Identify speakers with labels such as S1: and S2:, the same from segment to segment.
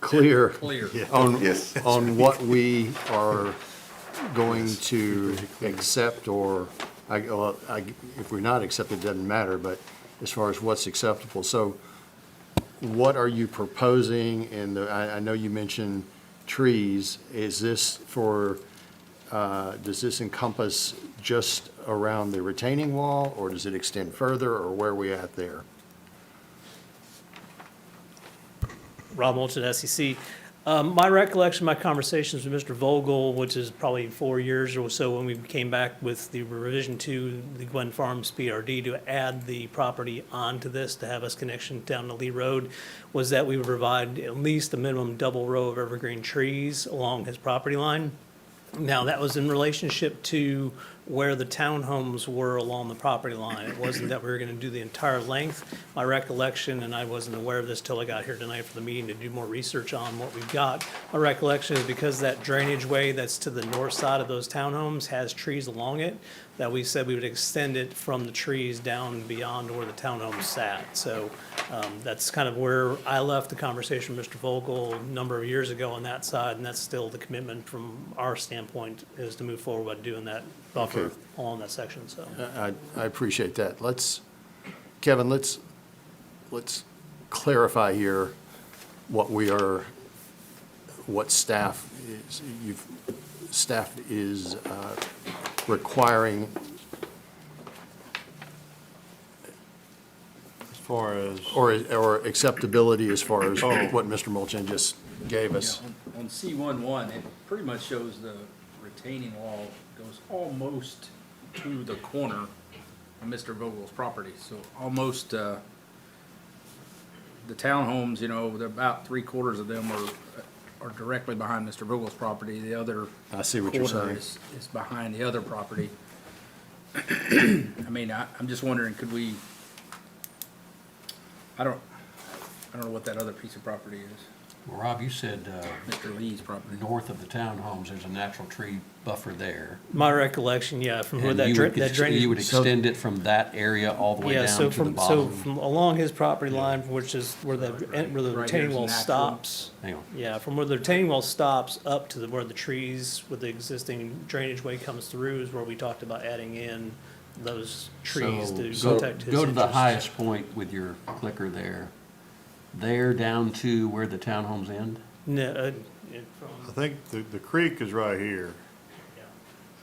S1: clear
S2: Clear.
S1: on,
S3: Yes.
S1: on what we are going to accept or, I, well, I- if we're not accepted, it doesn't matter, but as far as what's acceptable. So what are you proposing? And the- I, I know you mentioned trees. Is this for, uh, does this encompass just around the retaining wall? Or does it extend further, or where are we at there?
S4: Rob Moulton, SEC. Um, My recollection, my conversations with Mr. Vogel, which is probably four years or so when we came back with the revision to the Gwen Farms PRD to add the property onto this to have us connection down to Lee Road, was that we would provide at least a minimum double row of evergreen trees along his property line. Now, that was in relationship to where the townhomes were along the property line. It wasn't that we were gonna do the entire length. My recollection, and I wasn't aware of this till I got here tonight for the meeting to do more research on what we've got. My recollection is because that drainage way that's to the north side of those townhomes has trees along it, that we said we would extend it from the trees down beyond where the townhomes sat. So, um, that's kind of where I left the conversation with Mr. Vogel a number of years ago on that side, and that's still the commitment from our standpoint is to move forward by doing that buffer
S1: Okay.
S4: along that section, so.
S1: I, I appreciate that. Let's, Kevin, let's, let's clarify here what we are, what staff is, you've, staff is uh, requiring
S5: As far as,
S1: or, or acceptability as far as
S5: Oh.
S1: what Mr. Mulchin just gave us.
S2: On C one one, it pretty much shows the retaining wall goes almost to the corner of Mr. Vogel's property, so almost, uh, the townhomes, you know, they're about three quarters of them are, are directly behind Mr. Vogel's property, the other
S1: I see what you're
S2: quarter
S1: saying.
S2: Is is behind the other property. I mean, I, I'm just wondering, could we, I don't, I don't know what that other piece of property is,
S6: Well, Rob, you said uh,
S2: Mr. Lee's property.
S6: north of the townhomes, there's a natural tree buffer there.
S4: My recollection, yeah, from where
S6: and
S4: that
S6: you
S4: dra-
S6: would
S4: that
S6: ex- You would
S4: drainage.
S6: extend it from that area all the way
S4: Yeah,
S6: down to
S4: so
S6: the
S4: from, so
S6: bottom.
S4: from along his property line, which is where the, where the
S2: Right
S4: retaining
S2: here's
S4: wall
S2: natural.
S4: stops.
S6: Hang on.
S4: Yeah, from where the retaining wall stops up to the, where the trees with the existing drainage way comes through is where we talked about adding in those trees
S6: So
S4: to
S6: go-
S4: protect his
S6: Go to the
S4: interests.
S6: highest point with your clicker there. There down to where the townhomes end?
S4: No, uh, it-
S5: I
S4: from
S5: think the, the creek is right here.
S4: yeah.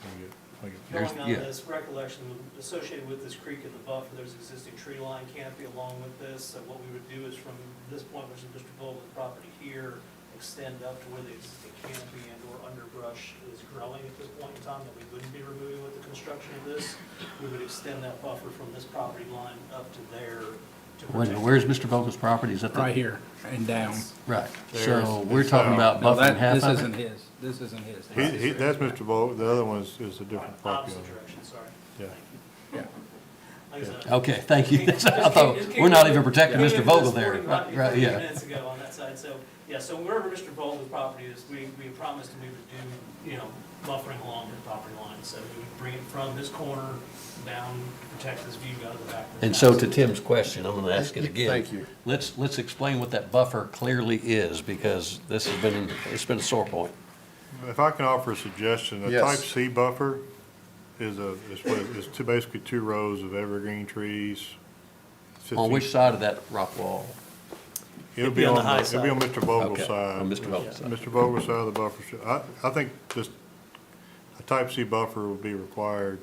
S5: Let me get- let me get-
S6: There's-
S4: Going on
S6: yeah.
S4: this recollection associated with this creek in the buffer, there's existing tree line canopy along with this. So what we would do is from this point, which is Mr. Vogel's property here, extend up to where the existing canopy and or underbrush is growing at this point in time that we wouldn't be removing with the construction of this. We would extend that buffer from this property line up to there to
S6: Wait a
S4: protect.
S6: minute, Where's Mr. Vogel's property? Is that the?
S2: Right here and down.
S6: Right. So
S5: There's-
S6: we're talking about
S2: uh, No,
S6: buffering
S2: that,
S6: half
S2: this
S6: of
S2: isn't
S6: it?
S2: his, this isn't his.
S5: He, he, that's Mr. Bo, the other one is, is a different property
S4: Opposite
S5: owner.
S4: direction, sorry.
S5: Yeah.
S2: Yeah.
S4: Like I said,
S6: Okay, thank you. That's what I
S4: Just came-
S6: thought.
S4: just came
S6: We're not
S4: in-
S6: even protecting
S4: came
S6: Mr.
S4: in
S6: Vogel
S4: this
S6: there.
S4: morning, about
S6: Right, right,
S4: 15
S6: yeah.
S4: Minutes ago on that side, so, yeah, so wherever Mr. Vogel's property is, we, we promised him we would do, you know, buffering along his property line, so we would bring it from this corner down, protect this view out of the back. of the
S6: And so
S4: house.
S6: to Tim's question, I'm gonna ask it again.
S1: Thank you.
S6: Let's, let's explain what that buffer clearly is, because this has been, it's been a sore point.
S5: If I can offer a suggestion, a
S1: Yes.
S5: type C buffer is a, is what, is two, basically two rows of evergreen trees.
S6: On
S5: 15
S6: which side of that rock wall?
S5: It'll be on,
S4: the high
S5: the- it'll be on
S4: side.
S5: Mr. Vogel's
S6: Okay,
S5: side.
S6: on Mr. Vogel's side.
S5: Mr. Vogel's side of the buffer, should- I, I think just a type C buffer would be required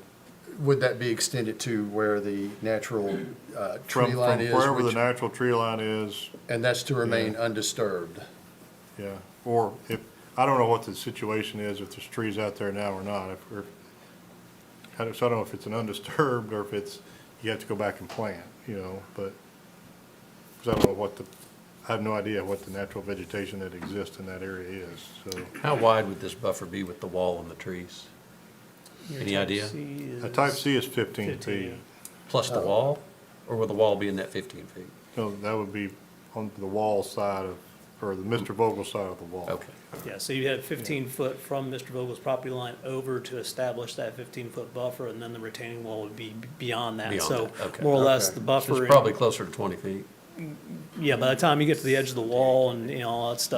S1: Would that be extended to where the natural uh,
S5: from,
S1: tree
S5: from
S1: line is?
S5: wherever the
S1: which-
S5: natural tree line is,
S1: And that's to remain undisturbed?
S5: yeah. Or if, I don't know what the situation is, if there's trees out there now or not, if, or, I don't, so I don't know if it's an undisturbed or if it's, you have to go back and plant, you know, but, cause I don't know what the, I have no idea what the natural vegetation that exists in that area is, so.
S6: How wide would this buffer be with the wall and the trees?
S4: Your
S6: Any
S4: type
S6: idea?
S4: C
S5: A type
S4: is-
S5: C is fifteen
S4: 15.
S5: feet.
S6: Plus
S1: Uh,
S6: the wall? Or would the wall be in that fifteen feet?
S5: No, that would be on the wall side of, or the Mr. Vogel side of the wall.
S6: Okay.
S4: Yeah, so you had fifteen foot from Mr. Vogel's property line over to establish that fifteen foot buffer, and then the retaining wall would be beyond that.
S6: Beyond
S4: So
S6: that, okay.
S4: more or less,
S1: Okay.
S4: the
S6: So
S4: buffer,
S6: it's probably closer to twenty feet.
S4: yeah, by the time you get to the edge of the wall and, you know, all that stuff,